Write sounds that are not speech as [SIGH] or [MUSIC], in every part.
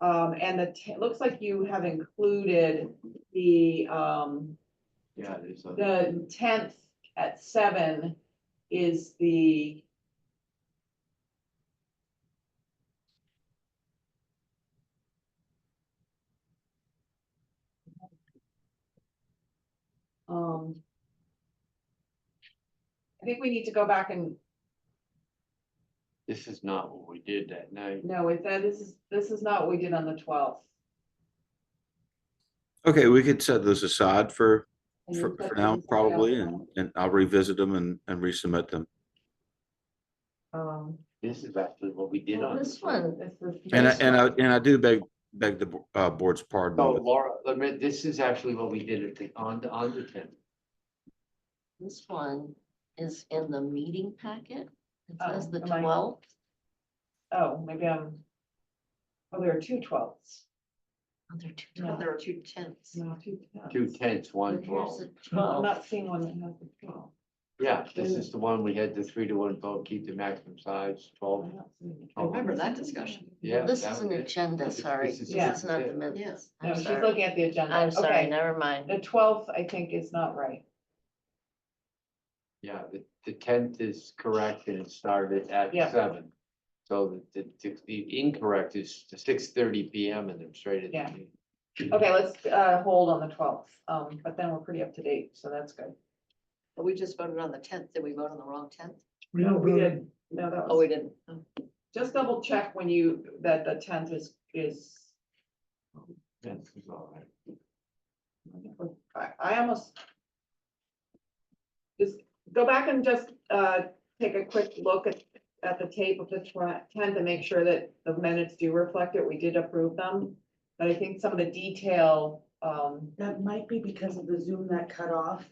Um, and the, ta- looks like you have included the, um, Yeah, there's a, the tenth at seven is the. Um. I think we need to go back and, this is not what we did that night. no, it said, this is, this is not what we did on the twelfth. Okay, we could set those aside for, for for now, probably, and, and I'll revisit them and, and resubmit them. Um. This is actually what we did Well, on. This one, this is- And I, and I, and I do beg, beg the, bo- uh, board's No, pardon. with- Laura, I mean, this is actually what we did at the, on, the on the tenth. this one is in the meeting packet. It Oh, says the am I- twelfth. Oh, maybe I'm. Oh, there are two twelfths. Oh, There are two, No. twel- there are two tenths. No, two Two tenths. tenths, one But here's twelve. [LAUGHS] the I'm 12th. not seeing one that has the twelve. Yeah, this is the one we had the three to one vote, keep the maximum size I Uh-huh. twelve. don't see it. I remember that discussion. Yeah. This that is an was it. agenda, This is- sorry. this This is- Yeah. is not the Yeah. minutes. No, I'm she's sorry. looking at the agenda. I'm sorry, Okay, never mind. the twelfth, I think, is not right. Yeah, the, the tenth is correct and it started at Yeah. seven. So the, the, the incorrect is six thirty P M and then straight at. the Yeah. meeting. Okay, let's, uh, hold on the twelfth, um, but then we're pretty up to date, so that's good. But we just voted on the tenth. Did we vote on the wrong tenth? We did, no, that Oh, we was, didn't. Oh, just double check when you, that the tenth is, is. Tenth is all right. I, I almost. Just go back and just, uh, take a quick look at, at the tape of the tenth and make sure that the minutes do reflect it. We did approve them. But I think some of the detail, um, That might be because of the Zoom that cut off.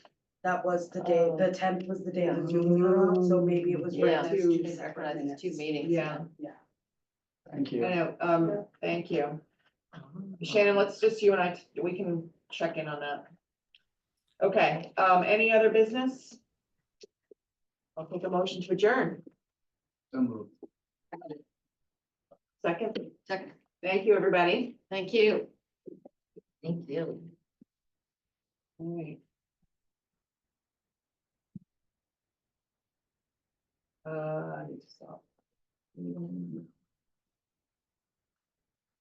That was the day, Oh. the tenth was the day of the Zoom cut off, so maybe it was. Yeah. right, there's Two two separate Right, it's two minutes. meetings. yeah, Yeah. Thank I know, um, thank you. Oh. Shannon, let's just, you and I, we can check in on that. Okay, um, any other business? I'll take a motion to adjourn. Second, Second. thank you, everybody. Thank you. Thank you. All right. Uh, I need to stop. Mm.